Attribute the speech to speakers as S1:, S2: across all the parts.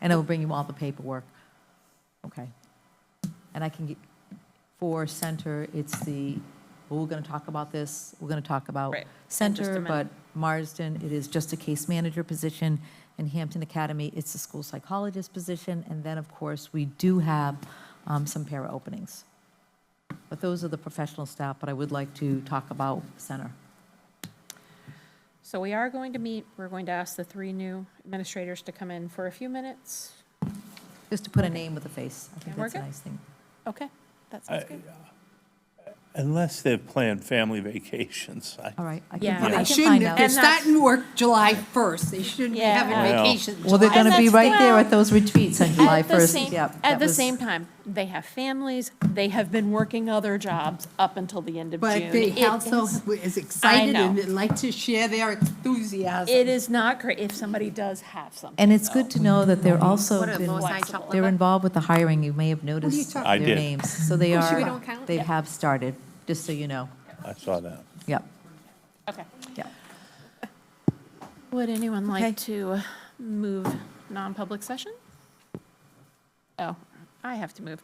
S1: And I will bring you all the paperwork. Okay. And I can get, for center, it's the, well, we're going to talk about this, we're going to talk about
S2: Right.
S1: center,
S2: Just a
S1: but
S2: minute.
S1: Marsden, it is just a case manager position. In Hampton Academy, it's the school psychologist position. And then, of course, we do have um, some para openings. But those are the professional staff, but I would like to talk about center.
S2: So we are going to meet, we're going to ask the three new administrators to come in for a few minutes.
S1: Just to put a name with a face. I think
S2: Yeah, we're
S1: that's a
S2: good.
S1: nice thing.
S2: Okay, that sounds good.
S3: Unless they've planned family vacations. I-
S1: All right. I can
S2: Yeah.
S1: fi-
S2: Well,
S1: I
S4: They
S1: can find
S4: shouldn't,
S1: out.
S4: if they're
S2: And that's-
S4: starting work July 1st, they shouldn't be
S2: Yeah.
S4: having
S3: Well.
S4: vacation.
S1: Well, they're
S4: July
S1: going to be
S2: that's
S1: right there
S2: the-
S1: at those retreats on July
S2: At the
S1: 1st.
S2: same-
S1: Yep. that
S2: At the
S1: was-
S2: same time, they have families, they have been working other jobs up until the end of June.
S4: But they
S2: It
S4: also
S2: is-
S4: is excited
S2: know.
S4: and would like to share their enthusiasm.
S2: It is not great if somebody does have something.
S1: And it's good to know that they're also,
S5: What are
S1: been-
S5: those high
S1: they're
S5: chocolate?
S1: involved with the hiring. You may have noticed
S4: talking
S1: their
S3: I did.
S1: names. So they
S5: Oh, so we
S1: are,
S5: don't count?
S1: they
S5: Yep.
S1: have started, just so you know.
S3: I saw that.
S1: Yep,
S2: Okay.
S1: yep.
S2: Would anyone
S1: Okay.
S2: like to move non-public session? Oh, I have to move.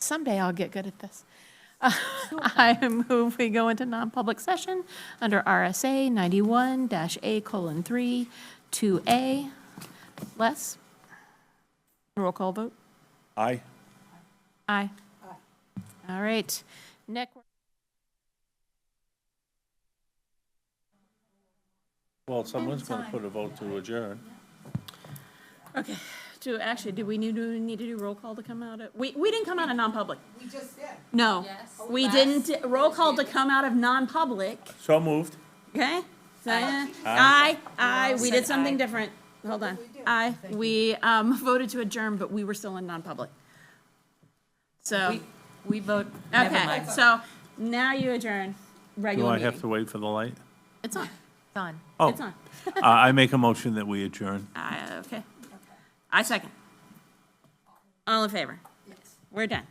S2: Someday I'll get good at this. Uh, I move we go into non-public session under RSA 91-A colon 3, 2A. Les? Roll call vote?
S3: Aye.
S2: Aye. All right. Nick?
S3: Well, someone's going to put a vote to adjourn.
S2: Okay, do, actually, do we need to, need to do roll call to come out of, we, we didn't come out of non-public. We just did. Oh, No. We didn't, roll call to come out of non-public,
S3: So moved.
S2: okay? I, I, we did something different. Hold on. I, we, um, voted to adjourn, but we were still in non-public. So,
S5: We vote, never
S2: okay,
S5: mind.
S2: so now you adjourn
S3: Do
S2: regular
S3: I have to
S2: meeting.
S3: wait for the light?
S2: It's on,
S1: Done.
S3: Oh,
S2: it's on.
S3: I I make a motion that we adjourn.
S2: I, okay. I second. All in favor? Yes. We're done.